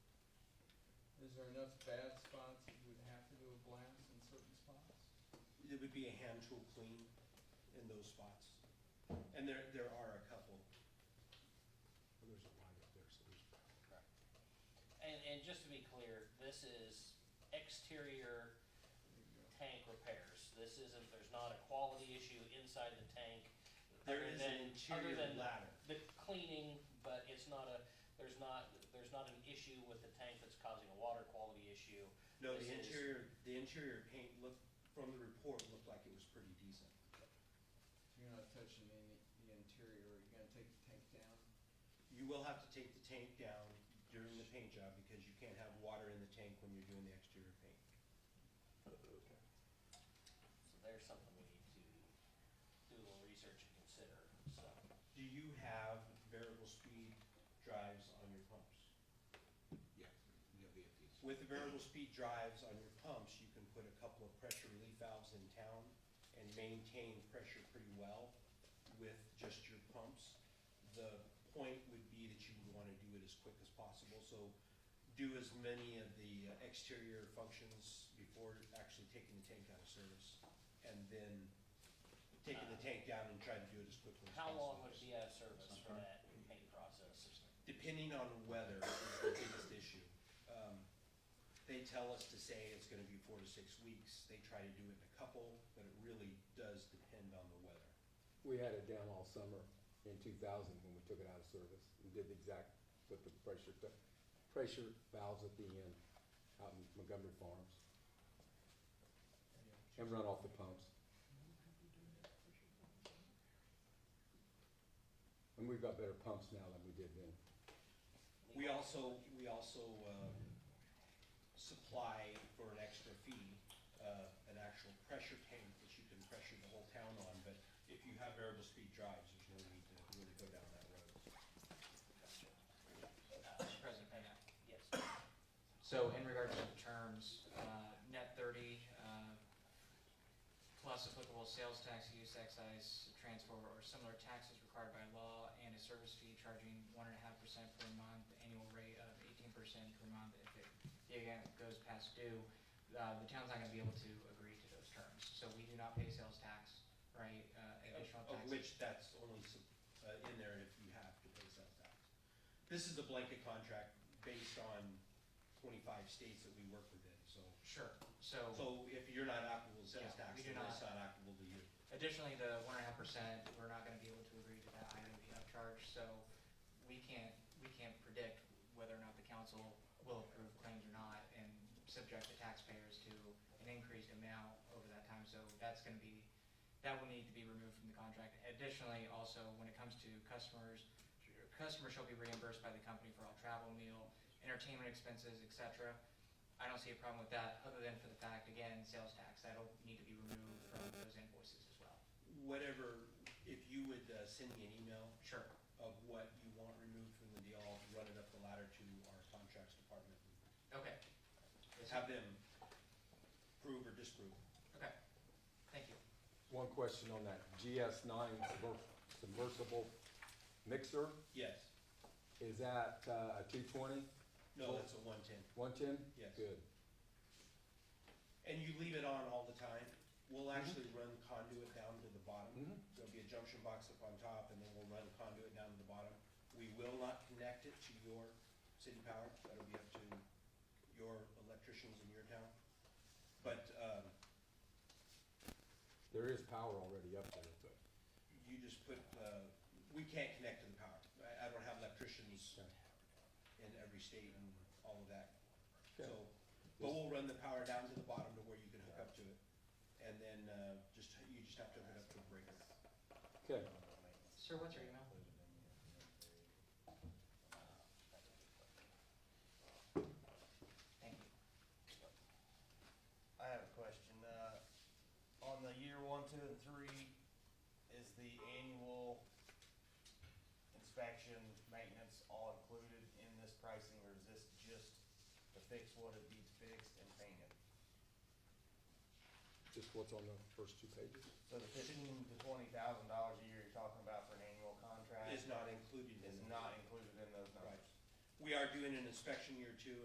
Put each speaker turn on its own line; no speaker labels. Is there enough bad spots that you would have to do a blast in certain spots?
It would be a hand tool clean in those spots. And there, there are a couple.
Well, there's a line up there, so there's.
Correct. And, and just to be clear, this is exterior
There you go.
tank repairs. This isn't, there's not a quality issue inside the tank.
There
other
is
than-
an interior
other than
ladder.
The cleaning, but it's not a, there's not, there's not an issue with the tank that's causing a water quality issue.
No,
This
the
is-
interior, the interior paint looked, from the report, looked like it was pretty decent.
So you're not touching any, the interior, you're gonna take the tank down?
You will have to take the tank down during the paint job because you can't have water in the tank when you're doing the exterior paint.
So there's something we need to do a little research and consider, so.
Do you have variable speed drives on your pumps?
Yeah, no VFDs.
With the variable speed drives on your pumps, you can put a couple of pressure relief valves in town and maintain pressure pretty well with just your pumps. The point would be that you would wanna do it as quick as possible, so do as many of the exterior functions before actually taking the tank out of service. And then taking the tank down and try to do it as quickly as
How
possible.
long would it be out of service for that paint process?
Depending on weather is the biggest issue. Um, They tell us to say it's gonna be four to six weeks. They try to do it in a couple, but it really does depend on the weather.
We had it down all summer in two thousand when we took it out of service and did the exact, with the pressure, t- pressure valves at the end out in Montgomery Farms and run off the pumps. And we've got better pumps now than we did then.
We also, we also uh, supply for an extra fee, uh, an actual pressure tank that you can pressure the whole town on. But if you have variable speed drives, there's no need to really go down that road.
Mr. President, may I?
Yes.
So in regards to the terms, uh, net thirty, uh, plus applicable sales tax, use excise, transfer, or similar taxes required by law, and a service fee charging one and a half percent per month, annual rate of eighteen percent per month if it, the account goes past due. Uh, The town's not gonna be able to agree to those terms, so we do not pay sales tax, right, uh, additional
Of- Of
taxes.
which that's only sup- uh, in there if you have to pay sales tax. This is a blanket contract based on twenty-five states that we work within, so.
Sure,
So if you're not applicable to sales
Yeah,
tax,
we do
then it's
not-
not applicable to you.
Additionally, the one and a half percent, we're not gonna be able to agree to that item be upcharged, so we can't, we can't predict whether or not the council will approve claims or not and subject the taxpayers to an increased amount over that time, so that's gonna be, that will need to be removed from the contract. Additionally, also, when it comes to customers, customers shall be reimbursed by the company for all travel, meal, entertainment expenses, et cetera. I don't see a problem with that, other than for the fact, again, sales tax, that'll need to be removed from those invoices as well.
Whatever, if you would uh, send me an email
Sure,
of what you want removed from the deal, I'll run it up the ladder to our contracts department.
okay. Yes,
Have them prove or disprove.
Okay, thank you.
One question on that GS nine submersible mixer,
Yes.
is that uh, a two twenty?
No, that's a one-ten.
One ten?
Yes.
Good.
And you leave it on all the time. We'll actually run conduit down to the bottom.
Mhm.
There'll be a junction box up on top, and then we'll run conduit down to the bottom. We will not connect it to your city power. That'll be up to your electricians in your town. But um,
There is power already up there, but.
you just put, uh, we can't connect to the power. I I don't have electricians in every state and all of that. So, but we'll run the power down to the bottom to where you can hook up to it. And then uh, just, you just have to hook it up to a breaker.
Okay,
Sir, what's your email? Thank you.
I have a question. Uh, on the year one, two, and three, is the annual inspection, maintenance all included in this pricing, or is this just to fix what it needs fixed and painted?
just what's on the first two pages?
So the fifteen to twenty thousand dollars a year you're talking about for an annual contract
is not included in
is
the-
not included in those
Right.
numbers?
We are doing an inspection year two